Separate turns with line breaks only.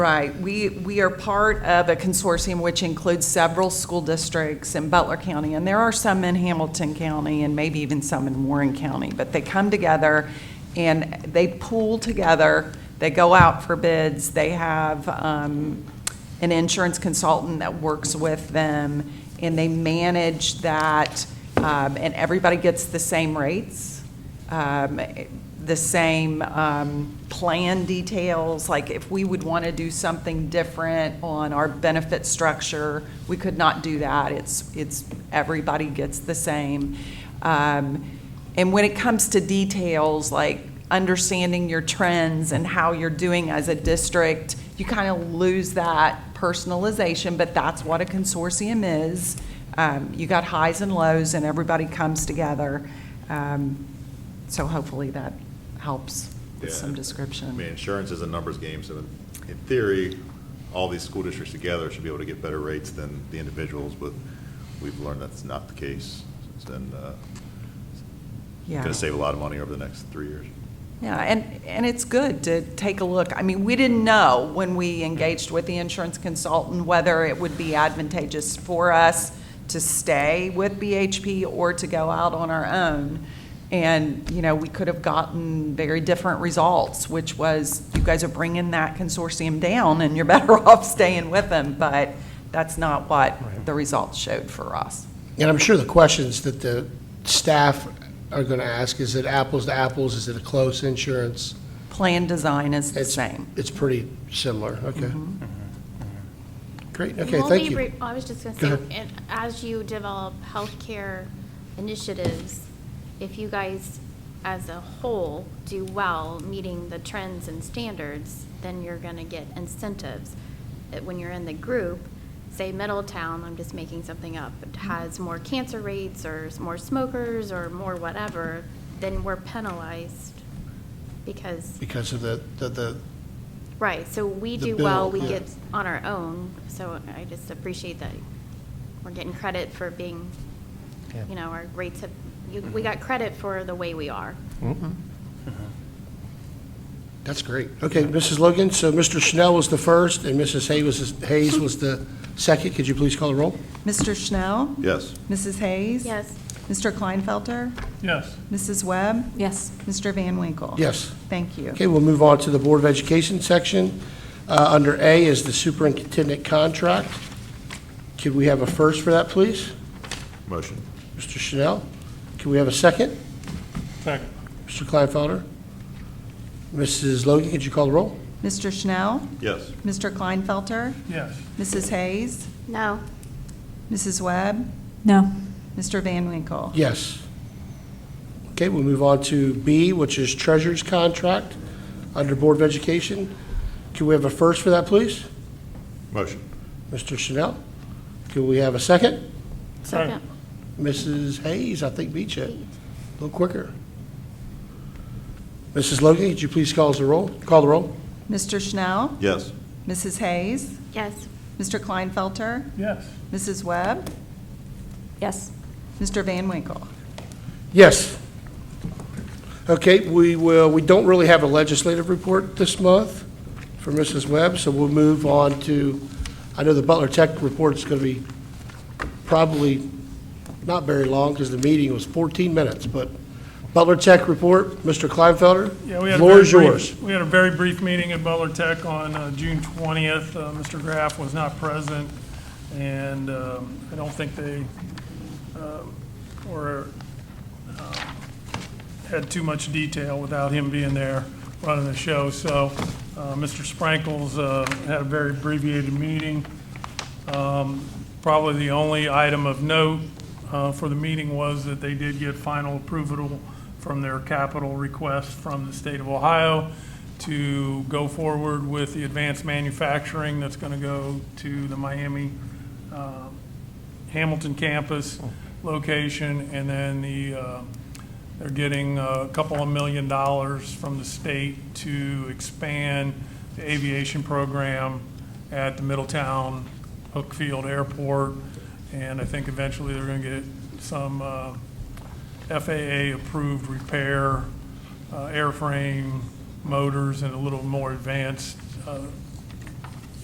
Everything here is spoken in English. Right. We, we are part of a consortium which includes several school districts in Butler County, and there are some in Hamilton County and maybe even some in Warren County. But they come together and they pool together, they go out for bids, they have um, an insurance consultant that works with them, and they manage that, um, and everybody gets the same rates um, the same um, plan details, like if we would want to do something different on our benefit structure, we could not do that. It's, it's, everybody gets the same. Um, And when it comes to details, like understanding your trends and how you're doing as a district, you kind of lose that personalization, but that's what a consortium is. Um, You got highs and lows, and everybody comes together. Um, so hopefully that helps with
Yeah.
some
I mean,
description.
insurance is a numbers game, so in in theory, all these school districts together should be able to get better rates than the individuals, but we've learned that's not the case. It's been, uh,
Yeah.
going to save a lot of money over the next three years.
Yeah, and, and it's good to take a look. I mean, we didn't know when we engaged with the insurance consultant whether it would be advantageous for us to stay with BHP or to go out on our own. And, you know, we could have gotten very different results, which was, you guys are bringing that consortium down and you're better off staying with them, but that's not what the results showed for us.
And I'm sure the questions that the staff are going to ask, is it apples to apples? Is it a close insurance?
Plan design is the
It's-
same.
It's pretty similar, okay. Mm-hmm. Great,
And
okay,
we'll
thank
be
you.
re- I was just going
Go
to say,
ahead.
and as you develop healthcare initiatives, if you guys as a whole do well, meeting the trends and standards, then you're going to get incentives. Uh, When you're in the group, say Middletown, I'm just making something up, it has more cancer rates or s- more smokers or more whatever, then we're penalized because
Because of the, the- the,
Right, so we
The
do well,
bill,
we
yeah.
get on our own, so I just appreciate that we're getting credit for being,
Yeah. Mm-hmm.
you know, our rates have, you- we got credit for the way we are.
that's great. Okay, Mrs. Logan, so Mr. Schnell was the first, and Mrs. Hayes was, Hayes was the second. Could you please call the roll?
Mr. Schnell?
Yes,
Mrs. Hayes?
Yes,
Mr. Kleinfelter?
Yes,
Mrs. Webb? Yes. Mr. Van Winkle?
Yes.
Thank you.
Okay, we'll move on to the Board of Education section. Uh, Under A is the superintendent contract. Could we have a first for that, please?
motion.
Mr. Chanel, can we have a second?
second,
Mr. Kleinfelder? Mrs. Logan, could you call the roll?
Mr. Schnell?
Yes,
Mr. Kleinfelter?
yes,
Mrs. Hayes?
no,
Mrs. Webb?
No,
Mr. Van Winkle?
Yes. Okay, we'll move on to B, which is treasurer's contract under Board of Education. Can we have a first for that, please?
motion.
Mr. Chanel, can we have a second?
second,
Mrs. Hayes, I think, beat you. A little quicker. Mrs. Logan, could you please call us the roll? Call the roll?
Mr. Schnell?
Yes,
Mrs. Hayes?
yes,
Mr. Kleinfelter?
yes,
Mrs. Webb?
yes,
Mr. Van Winkle?
Yes. Okay, we will, we don't really have a legislative report this month for Mrs. Webb, so we'll move on to, I know the Butler Tech report is going to be probably not very long because the meeting was 14 minutes, but Butler Tech report, Mr. Kleinfelder?
yeah. we had a
Floor
very
is
brief-
yours.
We had a very brief meeting at Butler Tech on uh, June twentieth. Mr. Graff was not present, and um, I don't think they um, were, um, had too much detail without him being there running the show. So uh, Mr. Sprankles uh, had a very abbreviated meeting. Probably the only item of note uh, for the meeting was that they did get final approval from their capital request from the state of Ohio to go forward with the advanced manufacturing that's going to go to the Miami uh, Hamilton campus location, and then the, uh, they're getting a couple of million dollars from the state to expand the aviation program at the Middletown Hookfield Airport, and I think eventually they're going to get some uh, FAA-approved repair, uh, airframe, motors, and a little more advanced uh,